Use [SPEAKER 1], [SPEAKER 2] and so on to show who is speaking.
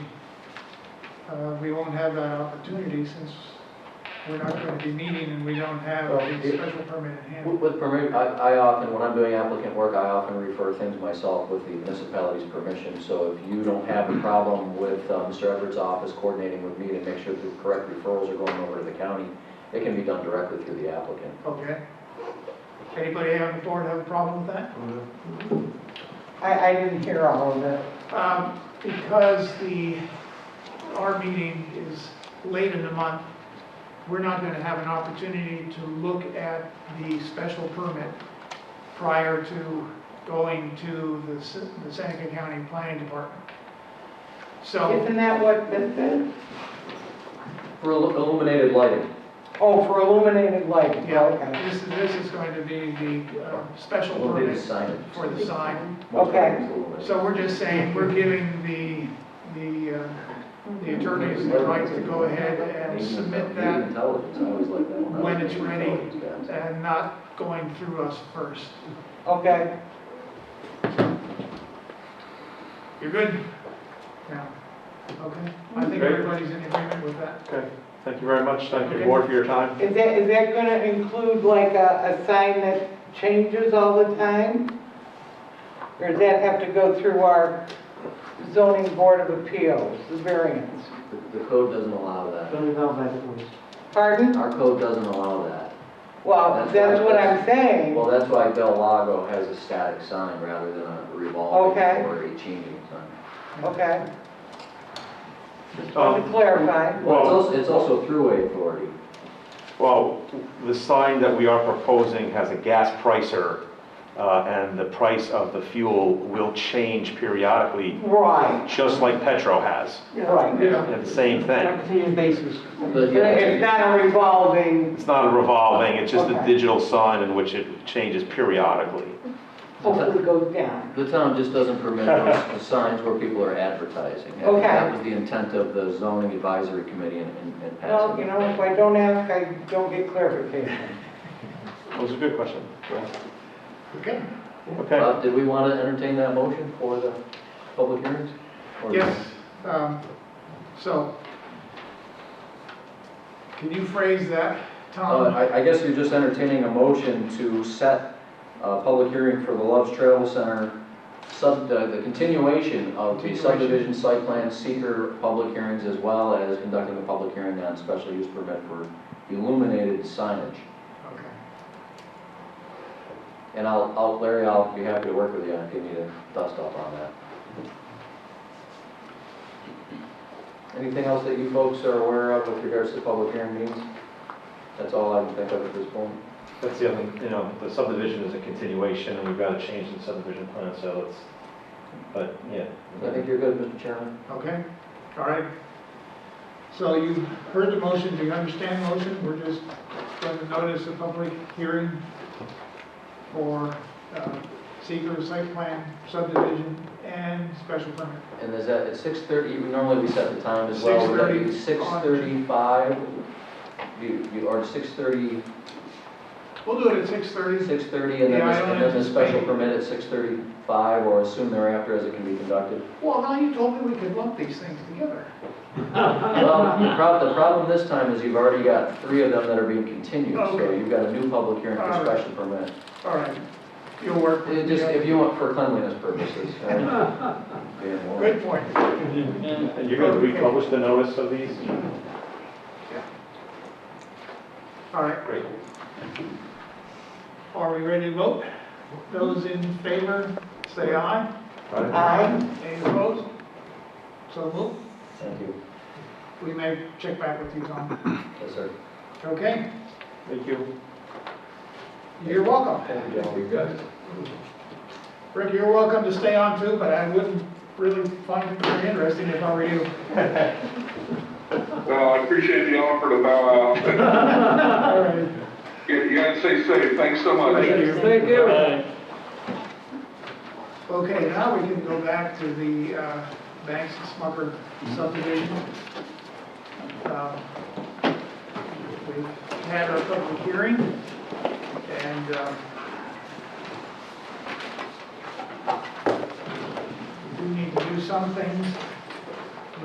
[SPEAKER 1] uh, we won't have that opportunity since we're not going to be meeting and we don't have a special permit in hand.
[SPEAKER 2] With with permit, I, I often, when I'm doing applicant work, I often refer things myself with the municipality's permission. So if you don't have a problem with uh, Mr. Everett's office coordinating with me to make sure the correct referrals are going over to the county, it can be done directly through the applicant.
[SPEAKER 1] Okay? Anybody on the board have a problem with that?
[SPEAKER 3] I, I didn't hear all of it.
[SPEAKER 1] Um, Because the, our meeting is late in the month, we're not going to have an opportunity to look at the special permit prior to going to the Se- the Seneca County Planning Department. So,
[SPEAKER 3] Isn't that what this is?
[SPEAKER 2] For illu- illuminated lighting,
[SPEAKER 3] Oh, for illuminated lighting,
[SPEAKER 1] yeah,
[SPEAKER 3] okay.
[SPEAKER 1] this is, this is going to be the uh, special
[SPEAKER 2] illuminated
[SPEAKER 1] permit
[SPEAKER 2] signage.
[SPEAKER 1] for the sign.
[SPEAKER 2] Most
[SPEAKER 3] Okay.
[SPEAKER 2] everything's illuminated.
[SPEAKER 1] So we're just saying, we're giving the, the, uh, the attorneys the right to go ahead and submit
[SPEAKER 2] Media
[SPEAKER 1] that
[SPEAKER 2] Intelligence, I always like that one.
[SPEAKER 1] when it's ready.
[SPEAKER 2] Intelligence guys.
[SPEAKER 1] and not going through us first.
[SPEAKER 3] Okay,
[SPEAKER 1] You're good? Now, okay? I think
[SPEAKER 4] Great.
[SPEAKER 1] everybody's in agreement with that.
[SPEAKER 4] Okay, thank you very much, thank you, board, for your time.
[SPEAKER 3] is that, is that gonna include like a, a sign that changes all the time? Or does that have to go through our zoning board of appeals, the variance?
[SPEAKER 2] The- The code doesn't allow that.
[SPEAKER 3] Pardon?
[SPEAKER 2] Our code doesn't allow that.
[SPEAKER 3] Well, that's what I'm saying.
[SPEAKER 2] Well, that's why Del Lago has a static sign rather than a revolving
[SPEAKER 3] Okay.
[SPEAKER 2] or a changing sign.
[SPEAKER 3] Okay, just wanted to
[SPEAKER 4] Um,
[SPEAKER 3] clarify.
[SPEAKER 2] Well, it's
[SPEAKER 4] Well-
[SPEAKER 2] also, it's also throughway authority.
[SPEAKER 4] Well, the sign that we are proposing has a gas pricer, uh, and the price of the fuel will change periodically,
[SPEAKER 3] Right,
[SPEAKER 4] just like Petro has.
[SPEAKER 3] right.
[SPEAKER 1] Yeah.
[SPEAKER 4] And the same thing.
[SPEAKER 2] But
[SPEAKER 3] It's
[SPEAKER 2] yeah,
[SPEAKER 3] not a revolving,
[SPEAKER 4] It's not a revolving, it's just a
[SPEAKER 3] Okay.
[SPEAKER 4] digital sign in which it changes periodically.
[SPEAKER 3] hopefully goes down.
[SPEAKER 2] the town just doesn't permit those- the signs where people are advertising. I think That
[SPEAKER 3] Okay.
[SPEAKER 2] was the intent of the zoning advisory committee in, in- in
[SPEAKER 3] Well, you
[SPEAKER 2] passing.
[SPEAKER 3] know, if I don't ask, I don't get clarification.
[SPEAKER 4] That was a good question.
[SPEAKER 1] Okay?
[SPEAKER 4] Okay,
[SPEAKER 2] Uh, did we want to entertain that motion for the public hearings? Or-
[SPEAKER 1] Yes, um, so. Can you phrase that,
[SPEAKER 2] Uh,
[SPEAKER 1] Tom?
[SPEAKER 2] I, I guess you're just entertaining a motion to set a public hearing for the Love's Travel Center, sub, uh, the the continuation of the
[SPEAKER 1] Continuation.
[SPEAKER 2] subdivision site plan seeker public hearings as well as conducting a public hearing on special use permit for illuminated signage.
[SPEAKER 1] Okay.
[SPEAKER 2] And I'll, I'll, Larry, I'll be happy to work with you if you need a dust up on that. Anything else that you folks are aware of with regards to public hearing meetings? That's all I can think of at this point.
[SPEAKER 4] that's the other, you know, the subdivision is a continuation, and we've got to change the subdivision plan, so it's, but, yeah.
[SPEAKER 2] I think you're good, Mr. Chairman.
[SPEAKER 1] Okay, all right. So you heard the motion, do you understand the motion? We're just going to notice a public hearing for uh, seeker site plan subdivision and special permit.
[SPEAKER 2] And is that at six thirty, we normally we set the time as well, would that be six
[SPEAKER 1] 6:30 on-
[SPEAKER 2] thirty-five? You, you, or six thirty,
[SPEAKER 1] We'll do it at six thirty.
[SPEAKER 2] six thirty, and then,
[SPEAKER 1] Yeah, I
[SPEAKER 2] this-
[SPEAKER 1] don't
[SPEAKER 2] and then the special
[SPEAKER 1] anticipate-
[SPEAKER 2] permit at six thirty-five, or as soon thereafter as it can be conducted?
[SPEAKER 1] Well, now you told me we could lump these things together. Uh,
[SPEAKER 2] Well, the prob, the problem this time is you've already got three of them that are being continued, so
[SPEAKER 1] Okay.
[SPEAKER 2] you've got a new public hearing for
[SPEAKER 1] All right.
[SPEAKER 2] special permit.
[SPEAKER 1] All right, you'll work.
[SPEAKER 2] It just, if you want, for cleanliness purposes. um, being more-
[SPEAKER 1] Good point.
[SPEAKER 4] And you're going to republish the notice of these?
[SPEAKER 1] All right,
[SPEAKER 4] Great.
[SPEAKER 1] are we ready to vote? Those in favor, say aye.
[SPEAKER 4] All right.
[SPEAKER 3] Aye.
[SPEAKER 1] Any opposed? So moved.
[SPEAKER 2] Thank you.
[SPEAKER 1] We may check back with you, Tom.
[SPEAKER 2] Yes, sir.
[SPEAKER 1] Okay,
[SPEAKER 4] Thank you.
[SPEAKER 1] you're welcome.
[SPEAKER 2] Thank you. You guys.
[SPEAKER 1] Rick, you're welcome to stay on too, but I wouldn't really find it very interesting if I were you.
[SPEAKER 5] Well, I appreciate the offer to bow out.
[SPEAKER 1] All right.
[SPEAKER 5] You you guys stay safe. Thanks so much.
[SPEAKER 1] Thank you.
[SPEAKER 3] Thank you.
[SPEAKER 1] Okay, now we can go back to the uh, Banks and Smucker subdivision. Um, We've had our public hearing, and um, we do need to do some things